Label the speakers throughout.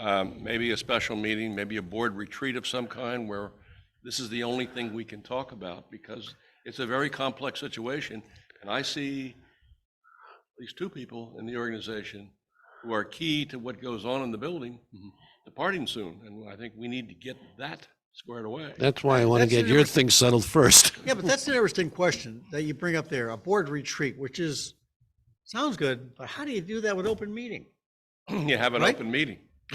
Speaker 1: um, maybe a special meeting, maybe a board retreat of some kind where this is the only thing we can talk about because it's a very complex situation. And I see at least two people in the organization who are key to what goes on in the building departing soon. And I think we need to get that squared away.
Speaker 2: That's why I want to
Speaker 3: That's
Speaker 2: get
Speaker 3: an
Speaker 2: your
Speaker 3: interesting-
Speaker 2: thing settled first.
Speaker 3: Yeah, but that's an interesting question that you bring up there, a board retreat, which is, sounds good, but how do you do that with open meeting?
Speaker 1: You have an
Speaker 3: Right?
Speaker 1: open meeting.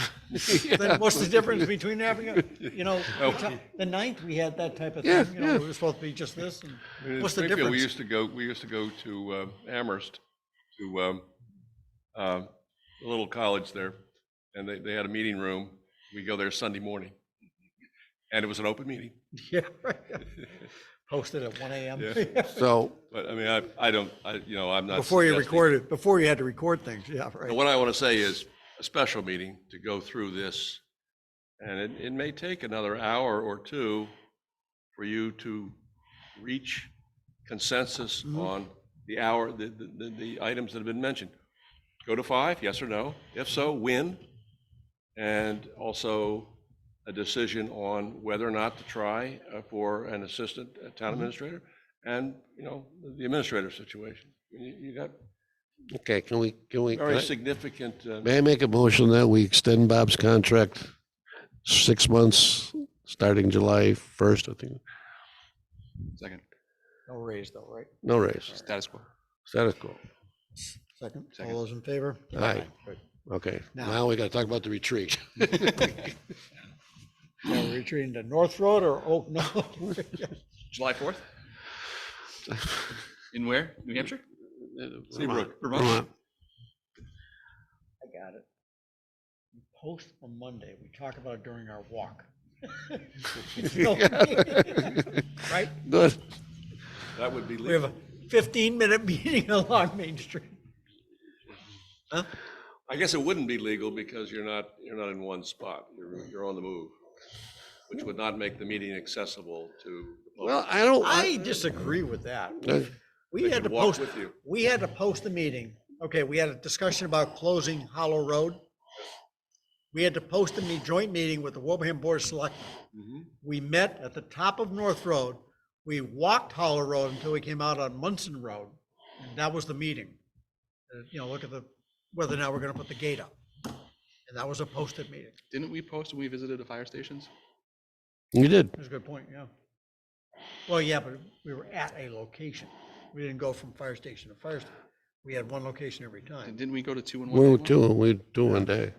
Speaker 3: Then what's the difference between having, a you know,
Speaker 1: Oh.
Speaker 3: the ninth, we had that type of
Speaker 2: Yeah,
Speaker 3: thing, you know,
Speaker 2: yeah.
Speaker 3: it was supposed to be just this, and
Speaker 1: In
Speaker 3: what's the
Speaker 1: Springfield, We
Speaker 3: difference?
Speaker 1: used to go, we used to go to uh, Amherst, to um, uh, a little college there, and they, they had a meeting room. We go there Sunday morning, and it was an open meeting.
Speaker 3: Yeah, right. Posted at one AM.
Speaker 2: So,
Speaker 1: But I mean, I, I don't, I, you know, I'm not.
Speaker 3: Before you
Speaker 1: suggesting-
Speaker 3: recorded, before you had to record things, yeah,
Speaker 1: But
Speaker 3: right.
Speaker 1: What I want to say is a special meeting to go through this, and it, it may take another hour or two for you to reach consensus on the hour, the, the- the, the items that have been mentioned. Go to five, yes or no? If so, when? And also a decision on whether or not to try uh, for an assistant uh, town administrator and, you know, the administrator situation. You, you got
Speaker 2: okay, can we, can we, can
Speaker 1: very
Speaker 2: I-
Speaker 1: significant. uh,
Speaker 2: may I make a motion that we extend Bob's contract six months, starting July 1st, I think?
Speaker 4: Second,
Speaker 3: No raise though, right?
Speaker 2: No raise,
Speaker 4: status quo.
Speaker 2: status quo.
Speaker 3: Second, all
Speaker 4: Second.
Speaker 3: those in favor?
Speaker 2: Aye.
Speaker 3: Right.
Speaker 2: Okay,
Speaker 3: Now-
Speaker 2: now we got to talk about the retreat.
Speaker 3: Now we're retreating to North Road or Oak, no,
Speaker 1: July 4th?
Speaker 4: In where? New Hampshire?
Speaker 1: Seabrook.
Speaker 2: Vermont.
Speaker 3: I got it. We Post on Monday, we talk about it during our walk. Right?
Speaker 2: Good.
Speaker 1: That would be
Speaker 3: We have
Speaker 1: legal.
Speaker 3: a fifteen-minute meeting along Main Street. Huh?
Speaker 1: I guess it wouldn't be legal because you're not, you're not in one spot. You're, you're on the move, which would not make the meeting accessible to. the public.
Speaker 2: Well, I don't,
Speaker 3: I disagree with that.
Speaker 2: I-
Speaker 3: We had
Speaker 1: could
Speaker 3: to
Speaker 1: walk
Speaker 3: post,
Speaker 1: with you.
Speaker 3: we had to post the meeting. Okay, we had a discussion about closing Hollow Road. We had to post a me- joint meeting with the Wilbraham Board of Selectmen.
Speaker 1: Mm-hmm.
Speaker 3: We met at the top of North Road. We walked Hollow Road until we came out on Munson Road. And that was the meeting. Uh, You know, look at the, whether or not we're gonna put the gate up. And that was a posted meeting.
Speaker 4: Didn't we post when we visited the fire stations?
Speaker 2: you did.
Speaker 3: That's a good point, yeah. Well, yeah, but we were at a location. We didn't go from fire station to fire station. We had one location every
Speaker 4: And
Speaker 3: time.
Speaker 4: didn't we go to two in
Speaker 2: We
Speaker 4: one? day
Speaker 2: were
Speaker 4: one?
Speaker 2: two, we were two one day.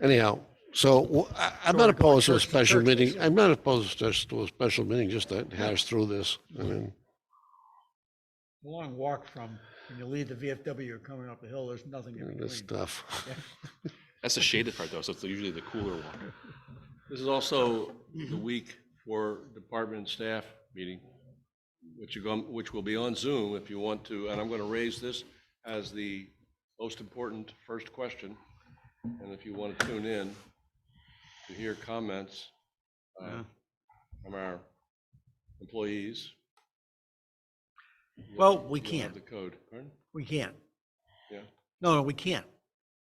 Speaker 2: Anyhow, so w- I- I'm not
Speaker 3: we're going
Speaker 2: opposed to a
Speaker 3: church to
Speaker 2: special
Speaker 3: church,
Speaker 2: meeting.
Speaker 3: basically.
Speaker 2: I'm not opposed to just to a special meeting, just to hash through this. I mean,
Speaker 3: A long walk from, when you leave the VFW, you're coming up the hill, there's nothing in
Speaker 2: this
Speaker 3: between.
Speaker 2: stuff.
Speaker 4: That's the shaded part though, so it's usually the cooler one.
Speaker 1: This is also the week for department and staff meeting, which you go, which will be on Zoom if you want to. And I'm going to raise this as the most important first question. And if you want to tune in to hear comments uh, from our employees.
Speaker 3: Well, we
Speaker 1: you'll have
Speaker 3: can't,
Speaker 1: The code, pardon?
Speaker 3: we can't.
Speaker 1: Yeah.
Speaker 3: No, no, we can't.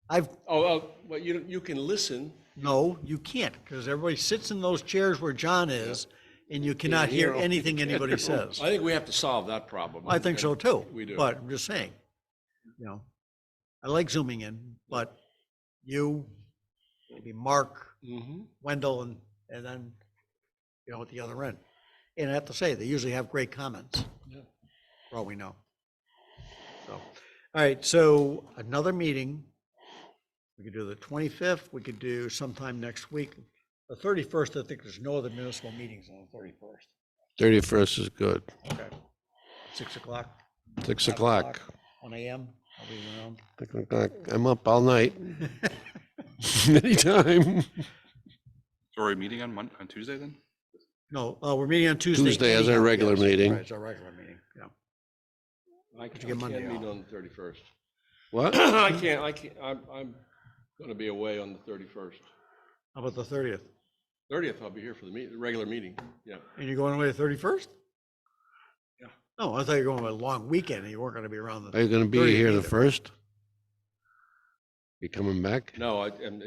Speaker 3: I've,
Speaker 1: Oh, oh, well, you, you can listen.
Speaker 3: no, you can't, because everybody sits in those chairs where John is, and you cannot hear anything anybody says.
Speaker 1: I think we have to solve that problem.
Speaker 3: I think so too.
Speaker 1: We do.
Speaker 3: But I'm just saying, you know, I like zooming in, but you, maybe Mark,
Speaker 1: Mhm.
Speaker 3: Wendell, and, and then, you know, at the other end. And I have to say, they usually have great comments,
Speaker 1: Yeah.
Speaker 3: for all we know. So, all right, so another meeting. We could do the twenty-fifth, we could do sometime next week. The thirty-first, I think there's no other municipal meetings on the thirty-first.
Speaker 2: 31st is good.
Speaker 3: Okay. Six o'clock.
Speaker 2: 6
Speaker 3: seven
Speaker 2: o'clock.
Speaker 3: One AM, I'll be around.
Speaker 2: Six o'clock. I'm up all night. Anytime.
Speaker 4: So are we meeting on Mon, on Tuesday then?
Speaker 3: No, uh, we're meeting on Tuesday.
Speaker 2: Tuesday is our
Speaker 3: anyhow,
Speaker 2: regular
Speaker 3: yes.
Speaker 2: meeting.
Speaker 3: Right, It's our regular meeting, yeah.
Speaker 1: I
Speaker 3: you get
Speaker 1: can't
Speaker 3: Monday
Speaker 1: meet
Speaker 3: off?
Speaker 1: on the thirty-first.
Speaker 2: What?
Speaker 1: I can't, I can't, I'm, I'm gonna be away on the thirty-first.
Speaker 3: How about the thirtieth?
Speaker 1: Thirtieth, I'll be here for the meet, the regular meeting, yeah.
Speaker 3: And you're going away the thirty-first?
Speaker 1: Yeah.
Speaker 3: No, I thought you were going on a long weekend and you weren't gonna be around the.
Speaker 2: Are you going to be
Speaker 3: 30th
Speaker 2: here the
Speaker 3: either.
Speaker 2: 1st? You coming back?
Speaker 1: No, I, and